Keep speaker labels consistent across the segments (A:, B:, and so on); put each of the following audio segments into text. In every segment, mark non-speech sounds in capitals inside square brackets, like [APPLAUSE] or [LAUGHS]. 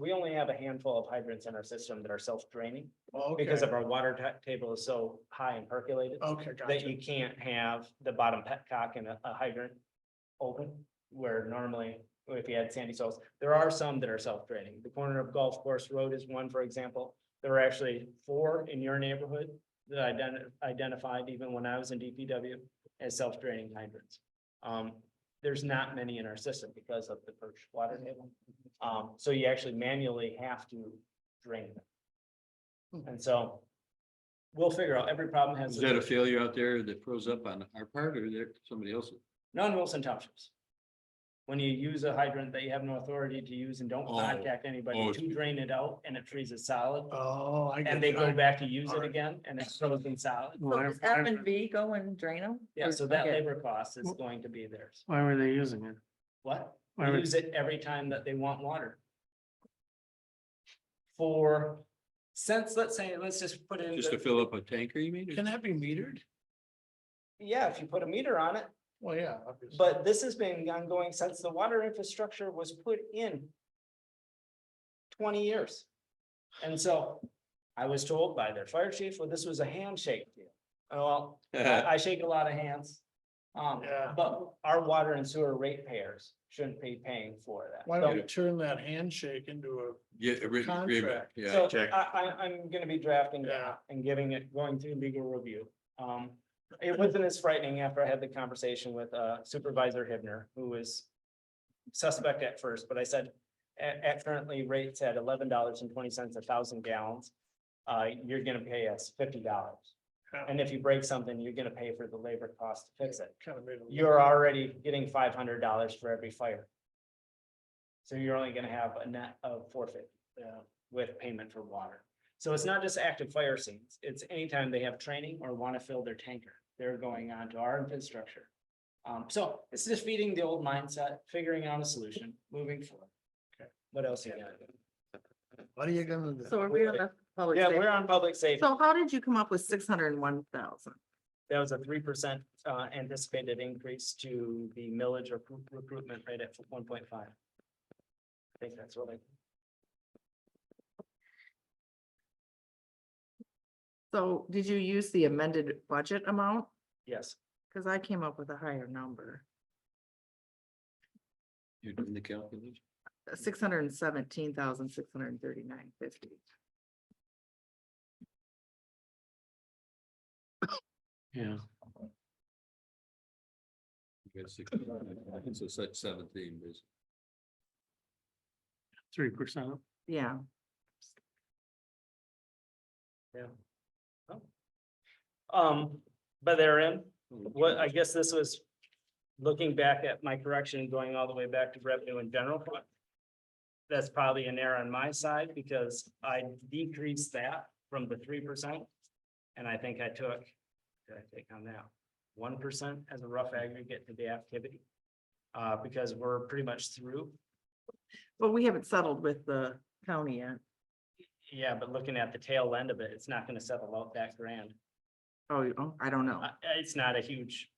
A: we only have a handful of hydrants in our system that are self-draining because
B: Oh, Okay,
A: of our water ta- table is so high and percolated
B: okay,
A: that
B: gotcha.
A: you can't have the bottom petcock and a a hydrant open, where normally, if you had sandy soils, there are some that are self-draining. The corner of Golf Course Road is one, for example. There were actually four in your neighborhood that I ident- identified even when I was in DPW as self-draining hydrants. Um, there's not many in our system because of the perched water table. Um, so you actually manually have to drain them. And so we'll figure out, every problem has.
C: Is
A: a
C: that a failure out there that froze up on our part or there somebody else's?
A: non-Wilson townships. When you use a hydrant that you have no authority to use and don't
C: Oh,
A: contact anybody
C: oh. Uh,
A: to drain it out and it freezes solid.
B: Oh, I.
A: And
B: get
A: they
B: you.
A: go
B: I-
A: back to use it
B: alright.
A: again and it's frozen solid.
D: So does F and V go and drain them?
A: Yeah, so that labor cost is going to be theirs.
E: Why were they using it?
A: What? They
E: Why were-
A: Use it every time that they want water. For, since, let's say, let's just put in,
C: Just to
A: the-
C: fill up a tanker, you mean?
B: Can
C: [LAUGHS]
B: that be metered?
A: yeah, if you put a meter on it,
B: Well, yeah, obviously.
A: but this has been ongoing since the water infrastructure was put in twenty years. And so I was told by their fire chief, well, this was a handshake deal. Oh, Well, I I shake a lot of hands. Um,
B: Yeah.
A: but our water and sewer ratepayers shouldn't be paying for that.
B: Why
A: So-
B: don't we turn that handshake into
C: Yeah, a written agreement,
B: Contract.
C: yeah.
A: so I, I, I'm gonna be drafting
B: Yeah.
A: that and giving it, going through legal review. Um, it wasn't as frightening after I had the conversation with uh, Supervisor Hibner, who was suspect at first, but I said, at, at currently rates at eleven dollars and twenty cents a thousand gallons, uh, you're gonna pay us fifty dollars.
B: a.
A: And if you break something, you're gonna pay for the labor cost to fix it.
B: Kind of made. a-
A: You're already getting five hundred dollars for every fire. So you're only gonna have a net of four fifty
B: Yeah.
A: with payment for water. So it's not just active fire scenes, it's anytime they have training or want to fill their tanker, they're going on to our infrastructure. Um, so it's just feeding the old mindset, figuring out a solution, moving forward.
B: Okay.
A: What else you got?
B: What are you gonna do?
D: So are we on the public?
A: Yeah,
D: safety?
A: we're on public safety.
D: So how did you come up with six hundred and one thousand?
A: That was a three percent uh anticipated increase to the millage or recruit- recruitment rate at one point five. I think that's what I.
D: So did you use the amended budget amount?
A: yes,
D: Cause I came up with a higher number,
C: You're doing the calculation.
D: six hundred and seventeen thousand, six hundred and thirty-nine fifty.
E: Yeah,
C: You got six- I think So such seventeen is.
E: three percent.
D: Yeah,
A: um, but they're in. What, I guess this was looking back at my correction, going all the way back to revenue in general fund. That's probably an error on my side because I decreased that from the three percent. And I think I took, did I take on that? One percent as a rough aggregate to the activity. Uh, because we're pretty much through.
D: but we haven't settled with the county yet.
A: Yeah, but looking at the tail end of it, it's not gonna settle out that grand.
D: Oh, you- oh, I don't know.
A: Uh, it's not a huge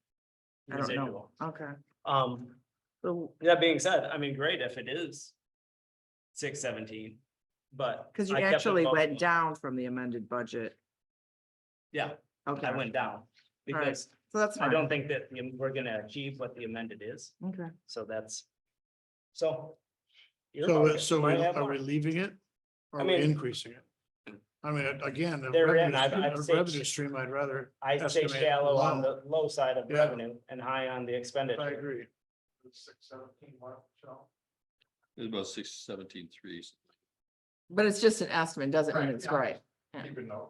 D: I don't know.
A: residual.
D: Okay,
A: Um,
D: so,
A: That being said, I mean, great if it is six seventeen, but.
D: cause you
A: I kept it
D: actually
A: low.
D: went down from the amended budget.
A: Yeah,
D: Okay,
A: I went down
D: right.
A: because
D: so that's
A: I
D: fine.
A: don't think that the- we're gonna achieve what the amended is,
D: Okay.
A: so that's, so. your
B: So, uh,
A: pocket
B: so
A: might
B: we-
A: have
B: are we
A: more.
B: leaving it? Or
A: I
B: are we
A: mean-
B: increasing it? I mean, again, a
A: They're in.
B: revenue
A: I've-
B: stream-
A: I've
B: a
A: said-
B: revenue stream, I'd rather,
A: I stay
B: estimate
A: shallow on
B: low.
A: the low side of
B: Yeah.
A: revenue and high on the
B: I
A: expenditure.
B: agree.
C: It's about six seventeen threes.
D: But it's just an estimate, doesn't mean
B: Right,
D: it's
B: yeah.
D: right.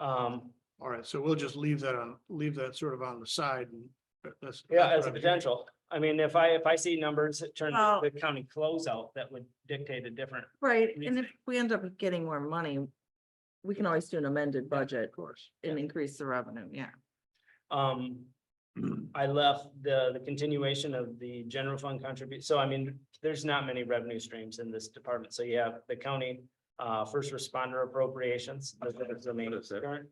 A: Um,
B: All right, so we'll just leave that on, leave that sort of on the side and that- that's.
A: yeah, as a
B: that's what I'm hearing.
A: potential, I mean, if I, if I see numbers that turn
D: Well-
A: the county closeout, that would dictate a different.
D: Right, and if we end up getting more money, we can always do an amended budget
B: Of course.
D: and increase the revenue, yeah.
A: Um, I left the, the continuation of the general fund contribute, so I mean, there's not many revenue streams in this department, so you have the county. Uh, first responder appropriations, those are the main
C: What is that?
A: current.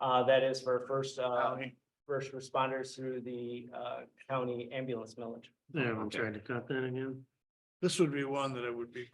A: Uh, that is for first, uh,
B: County.
A: first responders through the, uh, county ambulance millage.
E: They haven't tried to cut that again.
B: This would be one that it would be